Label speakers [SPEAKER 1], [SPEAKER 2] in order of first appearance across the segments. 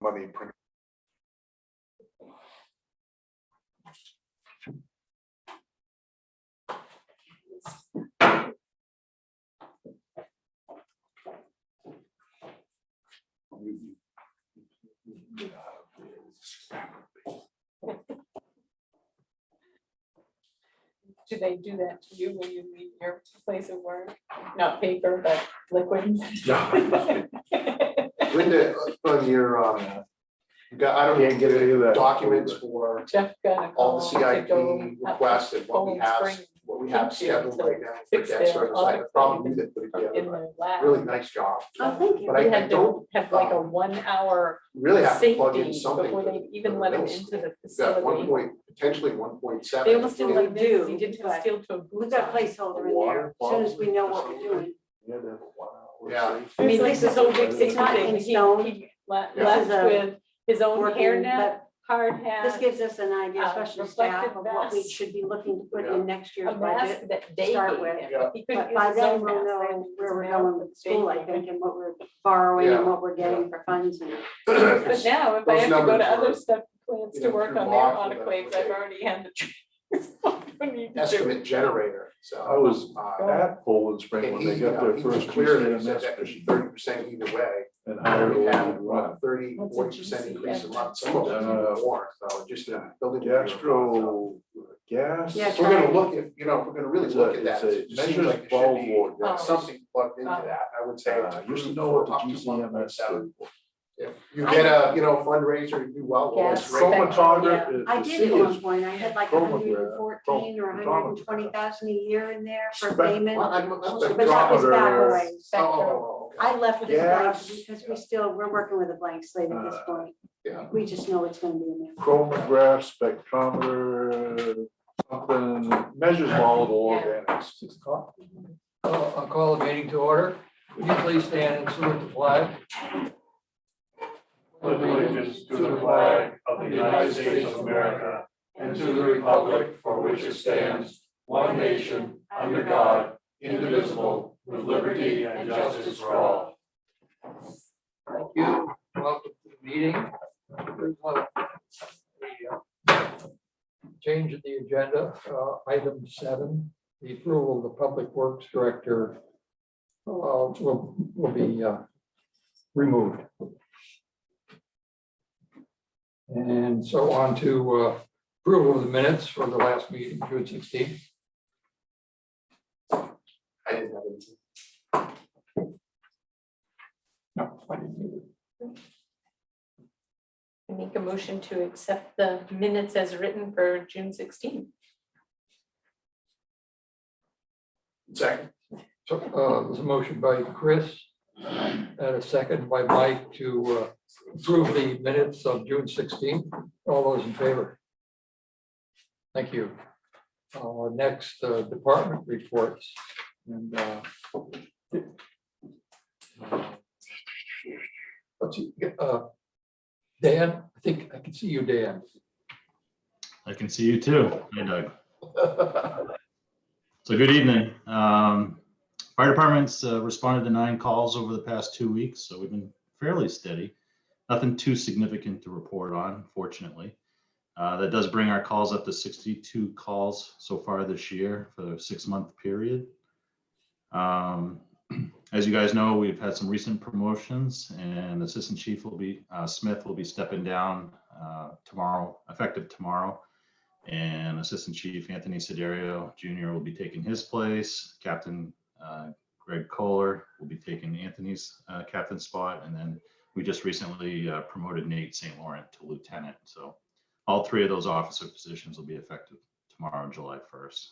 [SPEAKER 1] money printer.
[SPEAKER 2] Do they do that to you when you leave your place of work? Not paper, but liquid?
[SPEAKER 1] Linda, on your, um, you got, I don't even get
[SPEAKER 3] Can't get any of
[SPEAKER 1] any
[SPEAKER 3] that.
[SPEAKER 1] documents for
[SPEAKER 2] Jeff got a
[SPEAKER 1] all
[SPEAKER 2] call
[SPEAKER 1] the
[SPEAKER 2] to
[SPEAKER 1] CIP
[SPEAKER 2] go. up
[SPEAKER 1] requests and what we
[SPEAKER 2] Golden
[SPEAKER 1] have,
[SPEAKER 2] Spring
[SPEAKER 1] what we have
[SPEAKER 2] Kitchen
[SPEAKER 1] scheduled
[SPEAKER 2] to
[SPEAKER 1] right now. for
[SPEAKER 2] fix
[SPEAKER 1] debt
[SPEAKER 2] their
[SPEAKER 1] service. I
[SPEAKER 2] audit
[SPEAKER 1] could Probably do that, but
[SPEAKER 2] In
[SPEAKER 1] again,
[SPEAKER 2] the lab.
[SPEAKER 1] really nice job.
[SPEAKER 2] Oh, thank
[SPEAKER 1] But I,
[SPEAKER 2] We
[SPEAKER 1] I
[SPEAKER 2] had to
[SPEAKER 1] don't
[SPEAKER 2] have like a one hour
[SPEAKER 1] really have to
[SPEAKER 2] safety
[SPEAKER 1] plug in something.
[SPEAKER 2] before they even let him into the
[SPEAKER 1] We've got one
[SPEAKER 2] facility.
[SPEAKER 1] point, potentially one point seven.
[SPEAKER 2] They almost didn't
[SPEAKER 4] We
[SPEAKER 2] let him, he
[SPEAKER 4] do,
[SPEAKER 2] didn't have
[SPEAKER 4] but
[SPEAKER 2] steel to a
[SPEAKER 4] We've
[SPEAKER 2] boot
[SPEAKER 4] got a
[SPEAKER 2] on.
[SPEAKER 4] placeholder in there, as soon as we know what we're doing.
[SPEAKER 1] Yeah.
[SPEAKER 2] I mean, this is so big,
[SPEAKER 4] It's
[SPEAKER 2] six
[SPEAKER 4] not
[SPEAKER 2] thing,
[SPEAKER 4] in
[SPEAKER 2] he,
[SPEAKER 4] stone.
[SPEAKER 2] he le-
[SPEAKER 1] Yeah.
[SPEAKER 2] left
[SPEAKER 4] This is a
[SPEAKER 2] with his own
[SPEAKER 4] working,
[SPEAKER 2] hairnet, hard
[SPEAKER 4] but
[SPEAKER 2] hat.
[SPEAKER 4] This gives us an idea,
[SPEAKER 2] uh,
[SPEAKER 4] especially staff,
[SPEAKER 2] reflective
[SPEAKER 4] of what we
[SPEAKER 2] vest.
[SPEAKER 4] should be looking to put
[SPEAKER 1] Yeah.
[SPEAKER 4] in next year's
[SPEAKER 2] a mask
[SPEAKER 4] budget.
[SPEAKER 2] that they gave
[SPEAKER 4] start
[SPEAKER 2] him.
[SPEAKER 4] with.
[SPEAKER 1] Yeah.
[SPEAKER 2] He couldn't
[SPEAKER 4] But
[SPEAKER 2] use
[SPEAKER 4] by
[SPEAKER 2] his
[SPEAKER 4] then
[SPEAKER 2] own
[SPEAKER 4] we'll
[SPEAKER 2] mask, they had
[SPEAKER 4] know
[SPEAKER 2] to use
[SPEAKER 4] where
[SPEAKER 2] a
[SPEAKER 4] we're
[SPEAKER 2] mask
[SPEAKER 4] going
[SPEAKER 2] that
[SPEAKER 4] with
[SPEAKER 2] they
[SPEAKER 4] school, I
[SPEAKER 2] gave him.
[SPEAKER 4] think, and what we're borrowing
[SPEAKER 1] Yeah.
[SPEAKER 4] and what we're
[SPEAKER 1] Yeah.
[SPEAKER 4] getting for funds and.
[SPEAKER 2] But now, if I
[SPEAKER 1] Those
[SPEAKER 2] have to go to
[SPEAKER 1] numbers were,
[SPEAKER 2] other stuff, plans
[SPEAKER 1] you
[SPEAKER 2] to
[SPEAKER 1] know,
[SPEAKER 2] work
[SPEAKER 1] too
[SPEAKER 2] on
[SPEAKER 1] long
[SPEAKER 2] their
[SPEAKER 1] for
[SPEAKER 2] autoclaves,
[SPEAKER 1] the-
[SPEAKER 2] I've already had the. so I don't need to do it.
[SPEAKER 1] estimate generator, so.
[SPEAKER 3] I was
[SPEAKER 1] uh,
[SPEAKER 3] at Poland Spring
[SPEAKER 1] And
[SPEAKER 3] when they
[SPEAKER 1] he,
[SPEAKER 3] got their
[SPEAKER 1] he was
[SPEAKER 3] first
[SPEAKER 1] clear that
[SPEAKER 3] clear
[SPEAKER 1] he said that could be thirty percent either way.
[SPEAKER 3] and hired a
[SPEAKER 1] We had
[SPEAKER 3] lot.
[SPEAKER 1] around thirty,
[SPEAKER 2] What's a
[SPEAKER 1] forty percent increase in
[SPEAKER 2] GCF?
[SPEAKER 1] month, some of them
[SPEAKER 3] Uh,
[SPEAKER 1] more, so just a building.
[SPEAKER 3] Gastro, gas.
[SPEAKER 4] Yeah,
[SPEAKER 1] If We're gonna look, if, you know, if we're gonna really
[SPEAKER 3] It's
[SPEAKER 1] look
[SPEAKER 3] a-
[SPEAKER 1] at
[SPEAKER 3] it's
[SPEAKER 1] that,
[SPEAKER 3] a-
[SPEAKER 1] it seems
[SPEAKER 3] measures
[SPEAKER 1] like there
[SPEAKER 3] ball
[SPEAKER 1] should be
[SPEAKER 3] ward, yeah.
[SPEAKER 2] Oh.
[SPEAKER 1] something plugged into
[SPEAKER 2] Oh.
[SPEAKER 1] that, I would say.
[SPEAKER 3] Uh,
[SPEAKER 1] to
[SPEAKER 3] You should
[SPEAKER 1] prove
[SPEAKER 3] know what the
[SPEAKER 1] up to
[SPEAKER 3] GCMS.
[SPEAKER 1] 1.7.
[SPEAKER 3] stood for.
[SPEAKER 1] If you get a, you know, fundraiser, you do well, well, it's
[SPEAKER 2] Gas
[SPEAKER 1] great.
[SPEAKER 2] spec.
[SPEAKER 3] Chromatograph.
[SPEAKER 4] I
[SPEAKER 3] the
[SPEAKER 4] did
[SPEAKER 3] city
[SPEAKER 4] at one
[SPEAKER 3] is-
[SPEAKER 4] point, I had like
[SPEAKER 3] Chroma-
[SPEAKER 4] hundred and fourteen or
[SPEAKER 3] Chroma-
[SPEAKER 4] hundred and twenty thousand a year in there for
[SPEAKER 3] Spec-
[SPEAKER 4] payment.
[SPEAKER 1] Well, I'm- I'm-
[SPEAKER 4] But that was back
[SPEAKER 3] Spectrometer.
[SPEAKER 4] away.
[SPEAKER 1] Oh, oh, oh, okay.
[SPEAKER 4] I left it blank
[SPEAKER 3] Yes.
[SPEAKER 4] because we still, we're working with a blank slate at this
[SPEAKER 3] Uh,
[SPEAKER 4] point.
[SPEAKER 1] yeah.
[SPEAKER 4] We just know it's gonna be in there.
[SPEAKER 3] Chromograph, spectrometer, something, measures volatile
[SPEAKER 2] Yeah.
[SPEAKER 3] organics. Six o'clock.
[SPEAKER 5] I'll I'll call the meeting to order. Would you please stand and salute the flag?
[SPEAKER 6] pledge allegiance to the flag of the United States of America and to the republic for which it stands, one nation, under God, indivisible, with liberty and justice for all.
[SPEAKER 5] Thank you. Welcome to the meeting. There's a- a, uh, Change in the agenda, uh, item seven, the approval of the Public Works Director uh, will, will be uh, removed. And so on to uh, approval of the minutes for the last meeting, June sixteenth.
[SPEAKER 1] I didn't have anything.
[SPEAKER 5] No, I didn't either.
[SPEAKER 2] I Make a motion to accept the minutes as written for June sixteenth.
[SPEAKER 1] Second,
[SPEAKER 5] So, uh, there's a motion by Chris and a second by Mike to uh, approve the minutes of June sixteenth. All those in favor? Thank you. Uh, next, uh, department reports and, uh, let's see, uh, Dan, I think I can see you, Dan.
[SPEAKER 7] I can see you too. Hi, Doug. So good evening. Um, Fire departments uh, responded to nine calls over the past two weeks, so we've been fairly steady. Nothing too significant to report on, fortunately. Uh, That does bring our calls up to 62 calls so far this year for the six-month period. Um, As you guys know, we've had some recent promotions and Assistant Chief will be, uh, Smith will be stepping down uh, tomorrow, effective tomorrow. And Assistant Chief Anthony Siderio Jr. will be taking his place. Captain uh, Greg Kohler will be taking Anthony's uh, captain spot. And then we just recently uh, promoted Nate St. Laurent to lieutenant. So all three of those officer positions will be effective tomorrow, July 1st.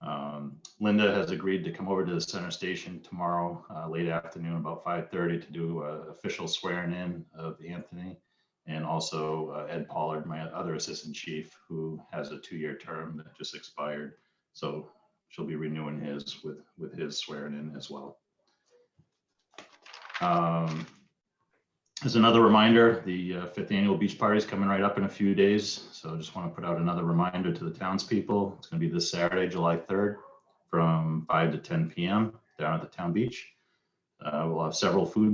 [SPEAKER 7] Um, Linda has agreed to come over to the center station tomorrow, uh, late afternoon, about 5:30 to do uh, official swearing in of Anthony and also uh, Ed Pollard, my other assistant chief, who has a two-year term that just expired. So she'll be renewing his with, with his swearing in as well. Um, As another reminder, the uh, fifth annual beach party is coming right up in a few days. So I just want to put out another reminder to the townspeople. It's going to be this Saturday, July 3rd, from 5 to 10 PM down at the town beach. Uh, We'll have several food